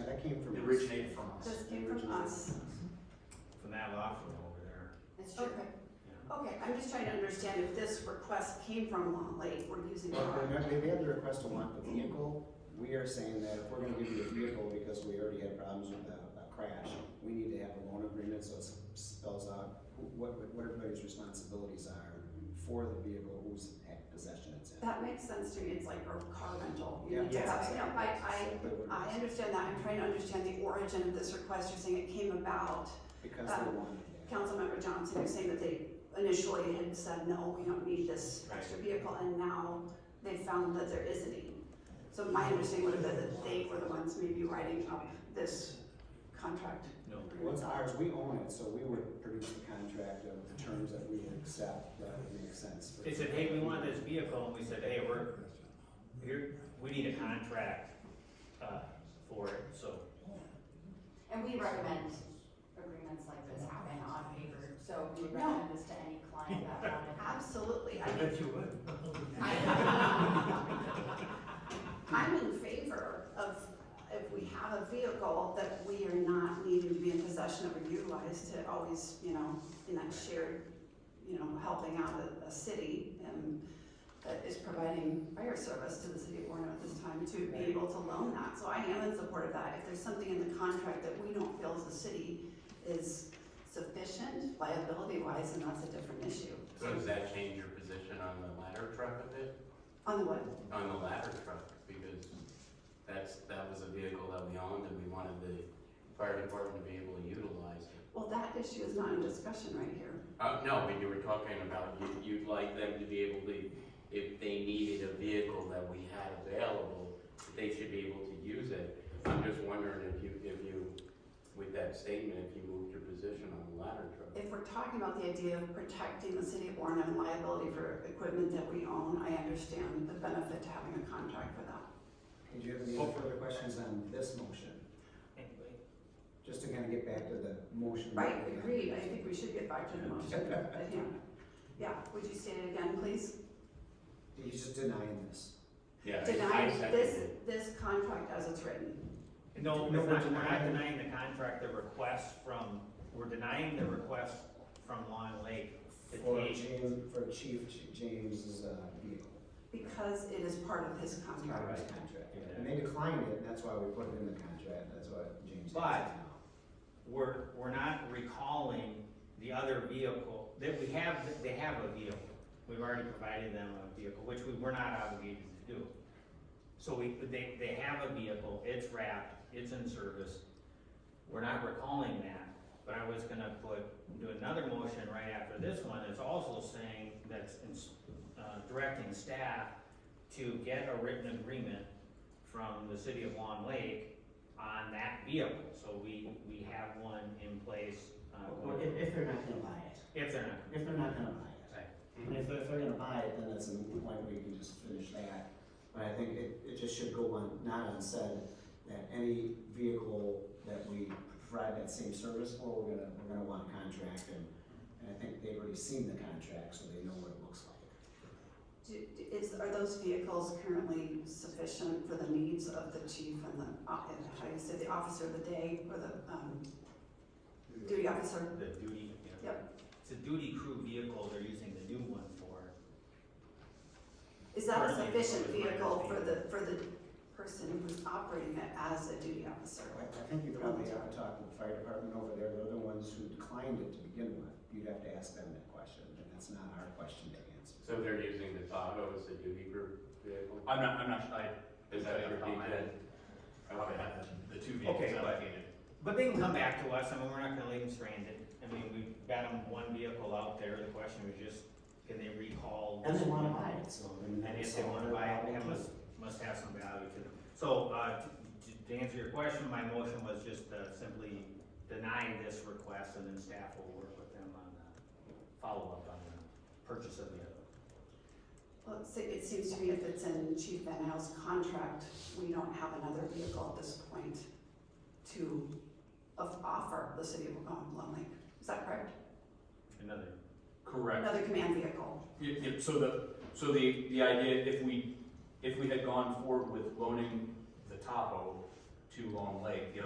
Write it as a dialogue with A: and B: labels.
A: that came from.
B: It originated from us.
C: This came from us.
D: from that locker room over there.
C: It's true.
A: Okay.
C: Okay, I'm just trying to understand if this request came from Lolly, we're using the
A: Well,
C: wrong.
A: they may- they had the request to want the vehicle, we are saying that if we're gonna give you a vehicle because we already had problems with a, a crash, we need to have a loan agreement, so it spells out who- what, what everybody's responsibilities are for the vehicle, whose possession it's in.
C: That makes sense to me, it's like a car rental. You
A: Yeah.
C: need to
A: Yeah.
C: have- you know, I,
A: Exactly what it
C: I, I
A: is.
C: understand that, I'm trying to understand the origin of this request, you're saying it came about.
A: Because they
C: um,
A: wanted that.
C: Councilmember Johnson, you're saying that they initially had said, no, we don't need this
D: Right.
C: extra vehicle, and now they found that there is a need. So my understanding would have been that they were the ones maybe writing up this contract.
D: No.
A: Well, it's ours, we own it, so we would produce the contract of the terms that we would accept, that would make sense. for-
D: They said, hey, we want this vehicle, and we said, hey, we're, here, we need a contract, uh, for it, so.
E: And we recommend agreements like this happen on paper, so we would recommend this to any client that wanted.
C: Absolutely, I mean,
D: you would.
C: I'm in favor of, if we have a vehicle, that we are not needing to be in possession of or utilized to always, you know, in that shared, you know, helping out a, a city and that is providing fire service to the city of Warren at this time to be able to loan that. So I am in support of that. If there's something in the contract that we don't feel as a city is sufficient liability wise, then that's a different issue.
F: So does that change your position on the ladder truck a bit?
C: On the what?
F: On the ladder truck, because that's, that was a vehicle that we owned and we wanted the fire department to be able to utilize it.
C: Well, that issue is not in discussion right here.
F: Uh, no, but you were talking about you, you'd like them to be able to, if they needed a vehicle that we had available, they should be able to use it. I'm just wondering if you, if you, with that statement, if you moved your position on the ladder truck.
C: If we're talking about the idea of protecting the city of Warren and liability for equipment that we own, I understand the benefit to having a contract for that.
A: Did you have any other further questions on this motion? Just to kind of get back to the motion. that
C: Right,
A: we had.
C: agreed, I think we should get back to the motion, but yeah. Yeah, would you state it again, please?
A: He's just denying this.
F: Yeah, I- I
C: Deny
F: second
C: this,
F: it.
C: this contract as it's written.
D: No,
A: No,
D: we're
A: we're
D: not, we're not
A: denying-
D: denying the contract, the request from, we're denying the request from Long Lake. to
A: For
D: take-
A: James, for Chief Ch- James's uh, vehicle.
C: Because it is part of his
A: His
C: contract.
A: Contract, yeah. And they declined it, and that's why we put it in the contract, that's what James. has
D: But-
A: now.
D: We're, we're not recalling the other vehicle, that we have, they have a vehicle. We've already provided them a vehicle, which we were not obligated to do. So we, they, they have a vehicle, it's wrapped, it's in service. We're not recalling that, but I was gonna put, do another motion right after this one, that's also saying, that's ins- uh, directing staff to get a written agreement from the city of Long Lake on that vehicle, so we, we have one in place, uh,
G: Or if, if they're not gonna buy it,
D: if they're not.
G: if they're not gonna buy it.
D: Right.
G: And if, if they're gonna buy it,
A: And
G: then
A: that's a moot point, we can just finish that, but I think it, it just should go on, not unsaid, that any vehicle that we provide that same service for, we're gonna, we're gonna want a contract, and, and I think they've already seen the contract, so they know what it looks like.
C: Do- do- Is, are those vehicles currently sufficient for the needs of the chief and the, uh, how do you say, the officer of the day or the, um, duty officer?
D: The duty, yeah.
C: Yep.
D: It's a duty crew vehicle they're using the new one for.
C: Is that a
D: Currently,
C: sufficient
D: it's my
C: vehicle for the, for the person who's operating it as a duty officer?
A: I I think you probably have to talk to the fire department over there, they're the ones who declined it to begin with. You'd have to ask them that question, and that's not our question to answer.
F: So they're using the Tahoe as a duty group vehicle?
H: I'm not, I'm not, I,
F: Is that your DPW?
H: I would have the two
D: Okay,
H: vehicles
D: but-
H: allocated.
D: But they can come back to us, I mean, we're not gonna leave them stranded. I mean, we've got them one vehicle out there, the question was just, can they recall?
G: and they wanna buy it, so.
D: And if they wanna buy it, they must, must have some value to them. So, uh, to, to answer your question, my motion was just, uh, simply deny this request and then staff will work with them on the follow-up on the purchase of the other.
C: Well, it's- it seems to me if it's in Chief Van Hal's contract, we don't have another vehicle at this point to of, offer the city of um, Lone Lake. Is that correct?
D: Another
H: Correct.
C: Another command vehicle.
H: Yep, yep, so the, so the, the idea, if we, if we had gone forward with loaning the Tahoe to Long Lake, the